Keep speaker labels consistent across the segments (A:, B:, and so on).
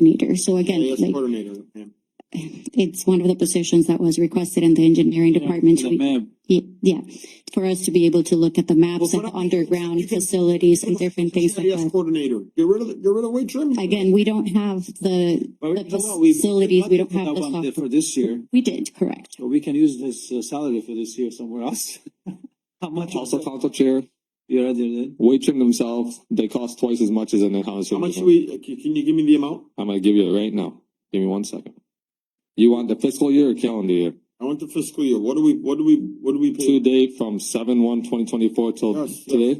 A: coordinator. So again,
B: Yes,
A: like,
B: coordinator. yeah.
A: it's one of the positions that was requested in the engineering department.
C: The
A: We-
C: map,
A: ye- Yeah, for us to be able to look at the maps
B: Well,
A: of
B: put up- you
A: underground
B: can-
A: facilities and different things like
B: Yes,
A: that.
B: coordinator. Get rid of, the- get rid of weight trim.
A: Again, we don't have the,
C: but we-
A: the
C: come on, we-
A: facilities, we don't
C: budgeted
A: have
C: that
A: the
C: one
A: software.
C: For this year,
A: We did, correct.
C: so we can use this uh, salary for this year somewhere else. How much?
D: Also, council chair,
C: You rather than,
D: Waitrim themselves, they cost twice as much as an
B: How
D: in-house.
B: much
D: uniform.
B: we, can can you give me the amount?
D: I'm gonna give you it right now. Give me one second. You want the fiscal year or calendar year?
B: I want the fiscal year. What do we, what do we, what do we pay?
D: Two day from seven one twenty twenty four till
B: Yes, yes.
D: today?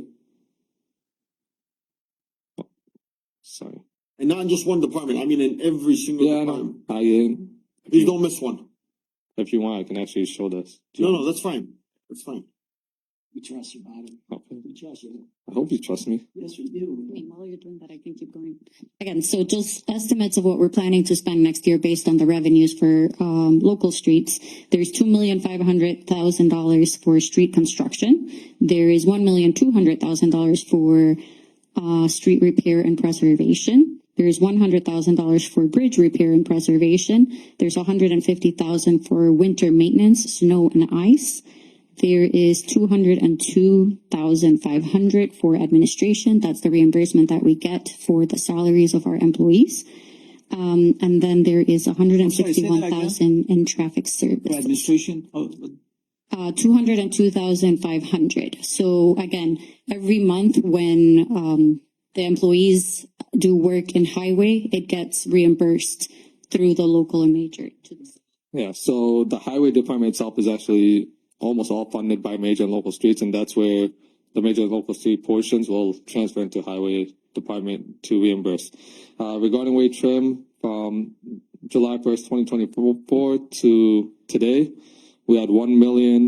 D: Sorry.
B: And not in just one department. I mean, in every
D: Yeah,
B: single
D: I know.
B: department.
D: I, uh,
B: Please don't miss one.
D: if you want, I can actually show this. Do
B: No,
D: you-
B: no, that's fine. That's fine.
C: we trust you, Bobby.
D: Okay.
C: We trust you.
D: I hope you trust me.
C: Yes, we do.
A: Okay, While you're doing that, I can keep going. Again, so just estimates of what we're planning to spend next year based on the revenues for um local streets. There's two million five hundred thousand dollars for street construction. There is one million two hundred thousand dollars for uh street repair and preservation. There's one hundred thousand dollars for bridge repair and preservation. There's $150,000 for winter maintenance, snow and ice. There is two hundred and two thousand five hundred for administration. That's the reimbursement that we get for the salaries of our employees. Um, and then there is a hundred and
C: sorry, say that
A: sixty-one
C: again.
A: thousand in traffic
C: For
A: service.
C: administration, oh, but
A: Uh, two hundred and two thousand five hundred. So again, every month when, um, the employees do work in highway, it gets reimbursed through the local and major to the
D: Yeah, so the highway department itself is actually almost all funded by major and local streets, and that's where the major and local street portions will transfer into highway department to reimburse. Uh, regarding weight trim, from July first, twenty twenty-four to today, we had one million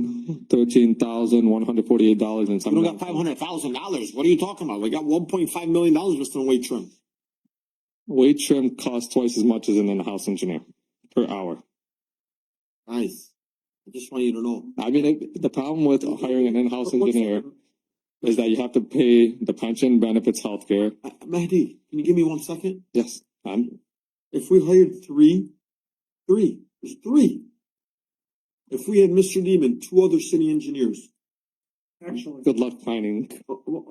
D: thirteen thousand one hundred forty-eight dollars and
B: We
D: something.
B: don't got five hundred thousand dollars. What are you talking about? We got one point five million dollars just in weight trim.
D: Weight trim costs twice as much as an in-house engineer per hour.
B: Nice. I just want you to know.
D: I mean, it- the problem with hiring an in-house engineer is that you have to pay the pension, benefits, healthcare.
B: Uh, Mahdi, can you give me one second?
D: Yes, I'm,
B: If we hired three, three, there's three. If we had Mr. Neiman, two other city engineers. Actually.
D: good luck finding.
B: You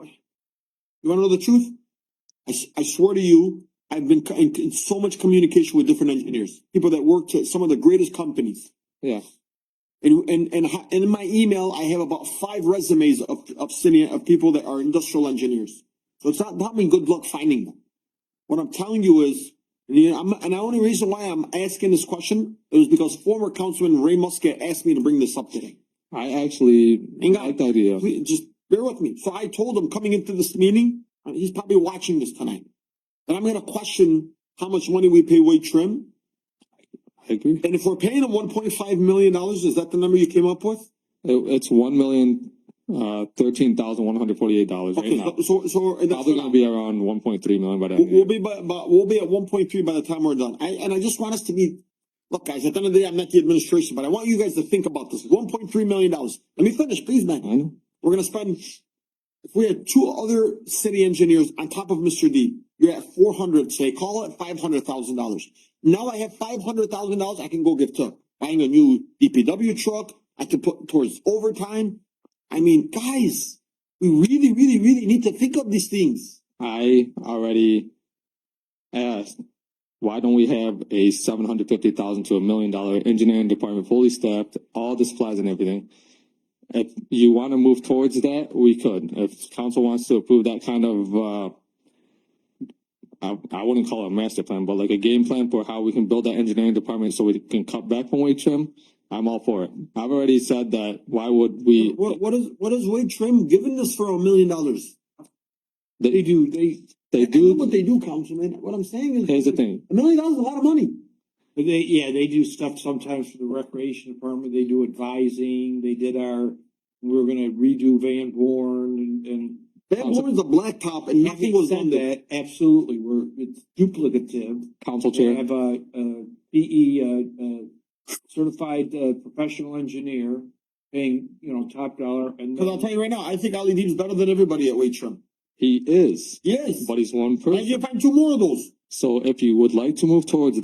B: wanna know the truth? I, s- I swear to you, I've been co- in, in so much communication with different engineers, people that worked at some of the greatest companies.
D: Yeah.
B: And, and, and ho- and in my email, I have about five resumes of, of city, of people that are industrial engineers. So it's not, not mean good luck finding them. What I'm telling you is, and you know, I'm, and the only reason why I'm asking this question is because former councilman Ray Muscat asked me to bring this up today.
D: I actually
B: Hang on.
D: like the idea.
B: Please, just bear with me. So I told him coming into this meeting, and he's probably watching this tonight, that I'm gonna question how much money we pay Wade Trim.
D: I agree. It,
B: And if we're paying him one point five million dollars, is that the number you came up with?
D: it's one million, uh, thirteen thousand one hundred forty-eight dollars right
B: Okay,
D: now.
B: so, so. and that's-
D: Probably gonna be around one point three million by the end.
B: We'll,
D: of the year.
B: we'll be, by but we'll be at one point three by the time we're done. I, and I just want us to be, look, guys, at the end of the day, I'm not the administration, but I want you guys to think about this. One point three million dollars. Let me finish, please, man.
D: I know.
B: We're gonna spend, if we had two other city engineers on top of Mr. D, you're at four hundred, say, call it five hundred thousand dollars. Now I have five hundred thousand dollars I can go give to buying a new DPW truck, I can put towards overtime. I mean, guys, we really, really, really need to think of these things.
D: I already asked, why don't we have a seven hundred fifty thousand to a million dollar engineering department fully staffed, all the supplies and everything? If you wanna move towards that, we could. If council wants to approve that kind of, uh, I, I wouldn't call it a master plan, but like a game plan for how we can build that engineering department so we can cut back from weight trim, I'm all for it. I've already said that, why would we?
B: What, what is, what is Wade Trim giving us for a million dollars? They do, they.
D: They
B: I know
D: do,
B: what they do, Councilman. What I'm saying is.
D: here's the thing,
B: A million dollars is a lot of money.
E: But they, yeah, they do stuff sometimes for the recreation department, they do advising, they did our, we were gonna redo Van Born and, and.
B: That was a blacktop and nothing was done
E: Having
B: there.
E: said that, Absolutely, we're, it's duplicative.
D: council
E: They
D: chair,
E: have a, a PE, uh, uh, certified, uh, professional engineer paying, you know, top dollar and.
B: Cause I'll tell you right now, I think Ali Deeb's better than everybody at Waitrim.
D: he is,
B: Yes.
D: but he's one person.
B: I can find two more of those.
D: So if you would like to move towards